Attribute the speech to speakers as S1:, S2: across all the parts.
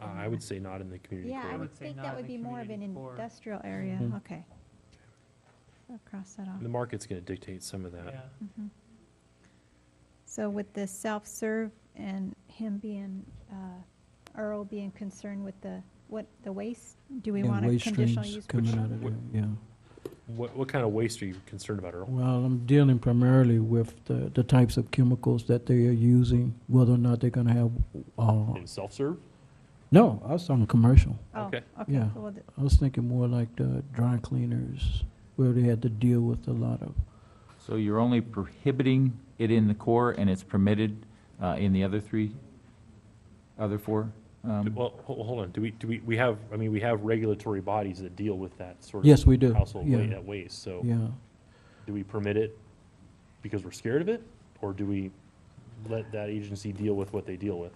S1: Uh, I would say not in the community
S2: Yeah, I
S1: corridor.
S2: would
S3: would say
S2: think
S3: not
S2: that
S3: in
S2: would
S3: the
S2: be more of an
S3: community core.
S2: industrial area,
S4: Mm-hmm.
S1: Mhm.
S2: okay. I'll cross that off.
S1: The market's gonna dictate some of
S3: yeah.
S1: that.
S2: Mhm. So with the self-serve and him being, uh, Earl being concerned with the, what, the waste, do we
S4: Yeah,
S2: want a
S4: waste
S2: conditional
S4: streams
S2: use?
S4: Coming
S2: permit?
S4: out of there, yeah.
S1: What, what kind of waste are you concerned about, Earl?
S4: Well, I'm dealing primarily with the, the types of chemicals that they are using, whether or not they're gonna have, uh,
S1: In self-serve?
S4: no, I was talking commercial.
S2: Oh,
S1: Okay.
S2: okay,
S4: Yeah.
S2: well, th-
S4: I was thinking more like the dry cleaners, where they had to deal with a lot of,
S5: So you're only prohibiting it in the core and it's permitted uh, in the other three, other four?
S1: Do-
S5: Um,
S1: Well, ho- hold on, do we, do we, we have, I mean, we have regulatory bodies that deal with that sort of.
S4: Yes, we do.
S1: Household wa-
S4: Yeah.
S1: uh, waste, so
S4: yeah.
S1: do we permit it because we're scared of it? Or do we let that agency deal with what they deal with?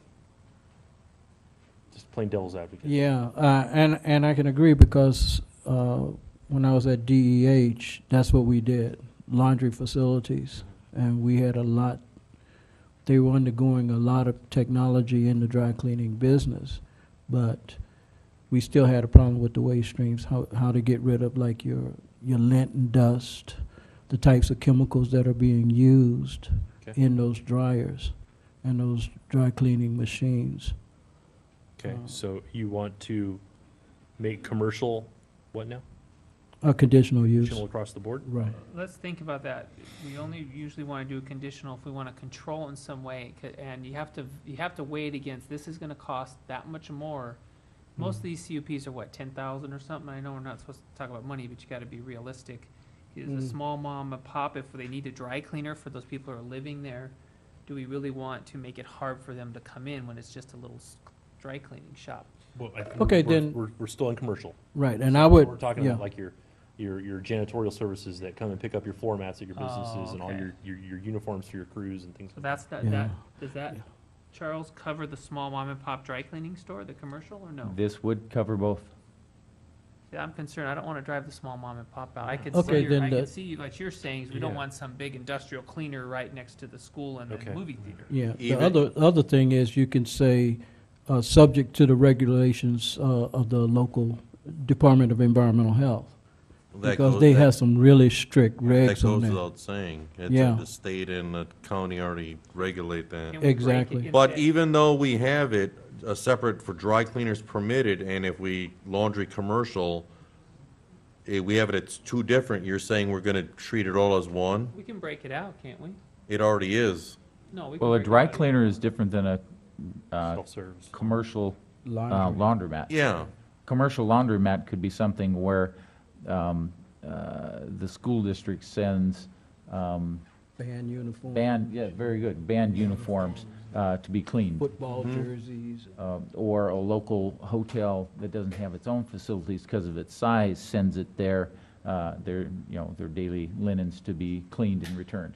S1: Just plain devil's advocate.
S4: Yeah, uh, and and I can agree because uh, when I was at DEH, that's what we did: laundry facilities, and we had a lot. They were undergoing a lot of technology in the dry cleaning business, but we still had a problem with the waste streams. How how to get rid of like your your lint and dust, the types of chemicals that are being used
S1: Okay.
S4: in those dryers and those dry cleaning machines.
S1: Okay,
S4: Uh,
S1: so you want to make commercial, what now?
S4: A conditional use.
S1: Channel across the board?
S4: Right.
S3: Let's think about that. We only usually want to do a conditional if we want to control in some way, c- and you have to, you have to weigh it against, this is gonna cost that much more. Most of these CUPs are what, ten thousand or something? I know we're not supposed to talk about money, but you gotta be realistic. Is a
S4: Mm.
S3: small mom and pop, if they need a dry cleaner for those people who are living there, do we really want to make it hard for them to come in when it's just a little s- dry cleaning shop?
S1: Well, I think
S4: Okay,
S1: we're-
S4: then-
S1: We're, we're still in commercial.
S4: Right, and I would,
S1: We're talking
S4: yeah,
S1: about like your, your, your janitorial services that come and pick up your floor mats at your
S3: Oh,
S1: businesses and all
S3: okay.
S1: your, your, your uniforms for your crews and things.
S3: So that's, that,
S4: Yeah.
S3: that, does that,
S4: Yeah.
S3: Charles, cover the small mom and pop dry cleaning store, the commercial, or no?
S5: This would cover both.
S3: See, I'm concerned, I don't wanna drive the small mom and pop out, I could
S4: Okay,
S3: see, your- I
S4: then
S3: could
S4: the-
S3: see, what you're saying, is we don't
S1: Yeah.
S3: want some big industrial cleaner right next to the school and
S1: Okay.
S3: the movie theater.
S4: yeah. The
S6: Even-
S4: other, other thing is you can say, uh, subject to the regulations, uh, of the local Department of Environmental Health.
S6: That
S4: Because
S6: goes-
S4: they
S6: that-
S4: have some really strict
S6: That
S4: regs on
S6: goes
S4: that.
S6: without saying. It's,
S4: Yeah.
S6: the state and the county already regulate
S3: Can we
S6: that.
S3: break it
S4: Exactly.
S3: into
S6: But
S3: that?
S6: even though we have it, uh, separate for dry cleaners permitted, and if we laundry commercial, eh, we have it, it's two different, you're saying we're gonna treat it all as one?
S3: We can break it out, can't we?
S6: It already is.
S3: No, we can.
S5: Well, a
S3: break it
S5: dry
S3: out.
S5: cleaner is different than a uh,
S1: Self-service.
S5: commercial uh,
S4: Laundry.
S5: laundromat.
S6: Yeah,
S5: Commercial laundromat could be something where um, uh, the school district sends um,
S4: Band uniform.
S5: band, yeah, very good, band uniforms uh, to be cleaned.
S4: Football
S6: Mm-hmm.
S4: jerseys.
S5: uh, or a local hotel that doesn't have its own facilities because of its size sends it their, uh, their, you know, their daily linens to be cleaned and returned.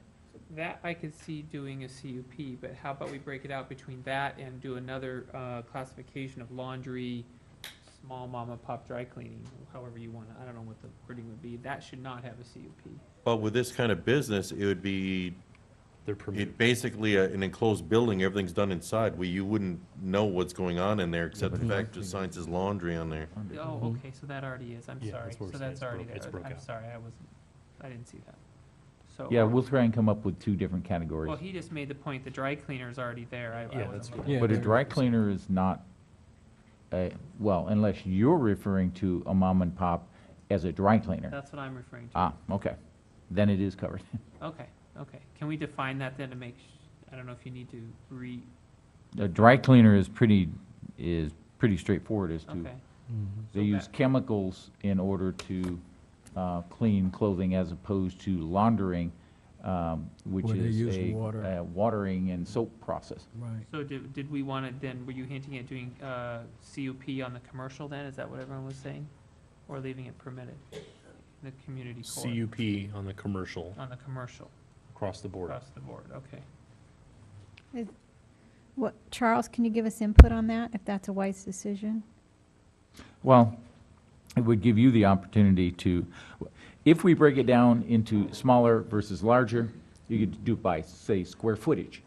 S3: That I could see doing a CUP, but how about we break it out between that and do another, uh, classification of laundry, small mom and pop dry cleaning, however you wanna, I don't know what the wording would be, that should not have a CUP.
S6: but with this kind of business, it would be,
S1: They're permitted.
S6: it basically a- an enclosed building, everything's done inside, where you wouldn't know what's going on in there, except the fact the signs is laundry on there.
S3: Oh, okay, so that already is, I'm
S1: Mm-hmm. Yeah,
S3: sorry,
S1: that's what we're
S3: so
S1: saying,
S3: that's
S1: it's
S3: already
S1: broke-
S3: there,
S1: it's broke
S3: I'm
S1: out.
S3: sorry, I wasn't, I didn't see that. So,
S5: Yeah,
S3: um,
S5: we'll try and come up with two different
S3: Well,
S5: categories.
S3: he just made the point, the dry cleaner's already there, I,
S1: Yeah,
S3: I
S1: that's
S3: wasn't
S1: good.
S3: looking.
S4: Yeah,
S5: But a
S4: there-
S5: dry cleaner is not, a- well, unless you're referring to a mom and pop as a dry cleaner.
S3: That's what I'm referring to,
S5: Ah, okay, then it is covered.
S3: okay, okay, can we define that then to make, sh- I don't know if you need to re,
S5: A dry cleaner is pretty, is pretty straightforward as to
S3: okay.
S5: They
S3: So
S5: use
S3: that-
S5: chemicals in order to uh, clean clothing as opposed to laundering, um, which
S4: Where they
S5: is
S4: use
S5: a
S4: water.
S5: a watering and soap process.
S4: Right.
S3: So did, did we want to then, were you hinting at doing, uh, CUP on the commercial then? Is that what everyone was saying? Or leaving it permitted? The community core,
S1: CUP on the commercial
S3: on the commercial,
S1: across the board.
S3: across the board, okay.
S2: What, Charles, can you give us input on that, if that's a wise decision?
S5: Well, it would give you the opportunity to, if we break it down into smaller versus larger, you could do it by, say, square footage.